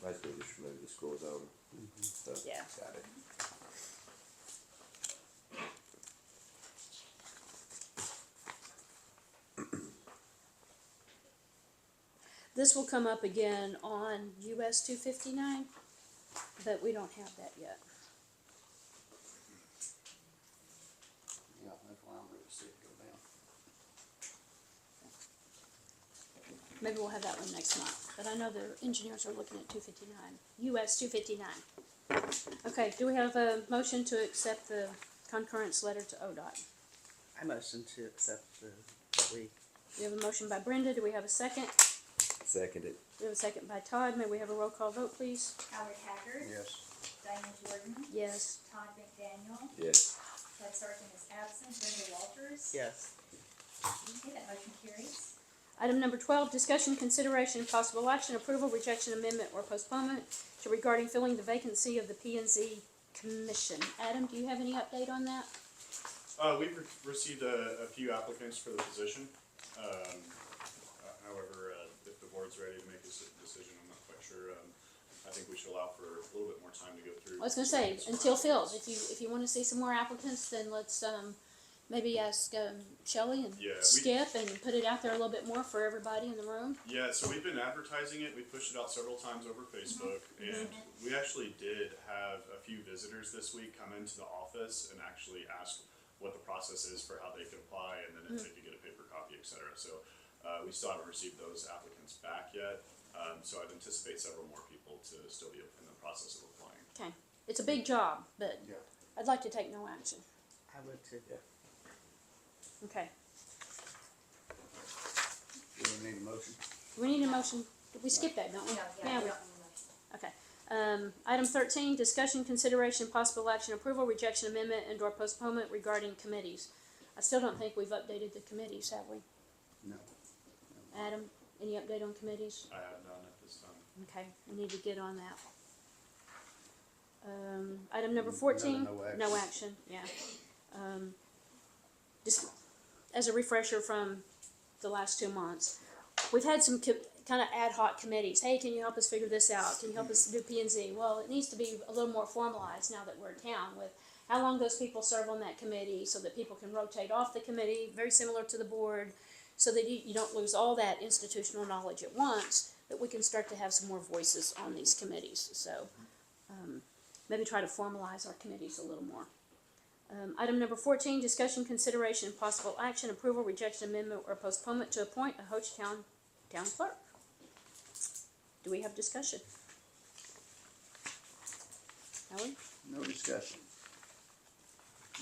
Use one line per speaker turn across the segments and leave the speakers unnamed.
I think we should maybe just scroll down. So,
Yeah.
Got it.
This will come up again on US two fifty-nine, but we don't have that yet.
Yeah, that's why I'm gonna see it go down.
Maybe we'll have that one next month, but I know the engineers are looking at two fifty-nine, US two fifty-nine. Okay, do we have a motion to accept the concurrence letter to ODOT?
I motion to accept the, that we,
We have a motion by Brenda, do we have a second?
Seconded.
We have a second by Todd, may we have a roll call vote, please?
Howard Haggard.
Yes.
Diane Jordan.
Yes.
Todd McDaniel.
Yes.
Ted Sargent is absent. Brenda Walters.
yes,
Okay, that motion carries.
Item number twelve, discussion, consideration, and possible action, approval, rejection, amendment, or postponement to regarding filling the vacancy of the P and Z commission. Adam, do you have any update on that?
Uh, we've re- received a, a few applicants for the position. Um, uh, however, uh, if the board's ready to make this decision, I'm not quite sure. Um, I think we should allow for a little bit more time to go through.
I was gonna say,
some
until filled,
applicants.
if you, if you wanna see some more applicants, then let's, um, maybe ask, um, Shelley and
Yeah, we-
Skip and put it out there a little bit more for everybody in the room.
Yeah, so we've been advertising it. We pushed it out several times over Facebook, and we actually did have a few visitors this week come into the office and actually ask what the process is for how they could apply, and then if they could get a paper copy, et cetera. So uh, we still haven't received those applicants back yet. Um, so I'd anticipate several more people to still be in the process of applying.
Okay, it's a big job, but
Yeah.
I'd like to take no action.
I would too.
Okay,
Do we need a motion?
we need a motion, Did we skip that, don't we?
No,
Yeah,
yeah,
we-
we don't need a motion.
Okay, um, item thirteen, discussion, consideration, possible action, approval, rejection, amendment, and or postponement regarding committees. I still don't think we've updated the committees, have we?
No.
Adam, any update on committees?
I have none at this time.
Okay, we need to get on that. Um, item number fourteen,
No, no
no action,
action.
yeah. Um, just as a refresher from the last two months, we've had some co- kind of ad hoc committees. Hey, can you help us figure this out? Can you help us do P and Z? Well, it needs to be a little more formalized now that we're in town with how long those people serve on that committee so that people can rotate off the committee, very similar to the board, so that you, you don't lose all that institutional knowledge at once, that we can start to have some more voices on these committees. So um, maybe try to formalize our committees a little more. Um, item number fourteen, discussion, consideration, and possible action, approval, rejection, amendment, or postponement to appoint a Hoach Town, town clerk. Do we have discussion? Helen,
No discussion.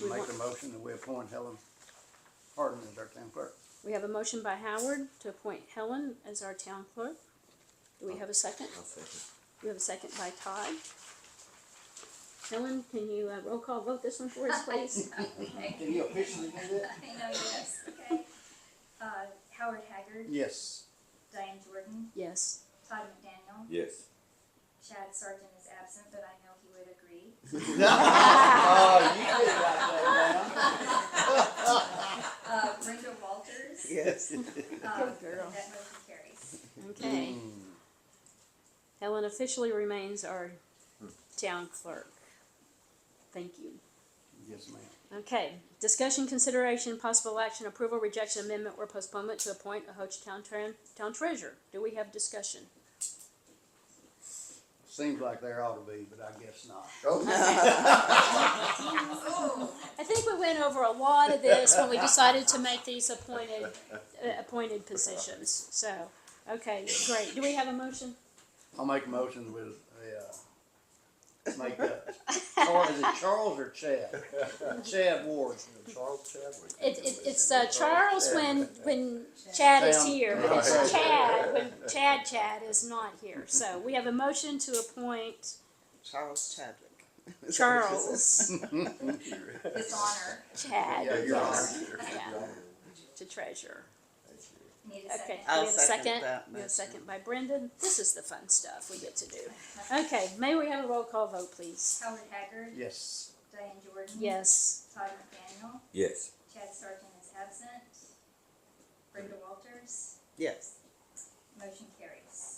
We
Make
want-
a motion that we appoint Helen Harden as our town clerk.
we have a motion by Howard to appoint Helen as our town clerk. Do we have a second?
I'll second.
We have a second by Todd. Helen, can you uh, roll call vote this one for us, please?
Can you officially do that?
I know, yes, okay. Uh, Howard Haggard.
Yes.
Diane Jordan.
Yes.
Todd McDaniel.
Yes.
Chad Sargent is absent, but I know he would agree.
Oh, you did write that down.
Uh, Brenda Walters.
Yes.
Uh,
Good girl.
That motion carries.
Okay. Helen officially remains our town clerk. Thank you.
Yes, ma'am.
Okay, discussion, consideration, possible action, approval, rejection, amendment, or postponement to appoint a Ho Chi Town Tran- Town Treasurer. Do we have discussion?
Seems like there ought to be, but I guess not.
Oh,
I think we went over a lot of this when we decided to make these appointed, uh, appointed positions. So, okay, great. Do we have a motion?
I'll make a motion with a, uh, make that, or is it Charles or Chad? Chad Ward.
Charles Chadwick.
It, it, it's uh, Charles when when Chad is
Sam.
here, but it's Chad when Chad Chad is not here. So we have a motion to appoint
Charles Chadwick.
Charles
dishonor.
Yeah,
Chad
you're on.
yeah, to treasurer.
Need a
Okay,
second.
we
I'll
have a
second
second.
that
We have a
motion.
second by Brendan. This is the fun stuff we get to do. Okay, may we have a roll call vote, please?
Howard Haggard.
Yes.
Diane Jordan.
Yes.
Todd McDaniel.
Yes.
Chad Sargent is absent. Brenda Walters.
Yes,
Motion carries.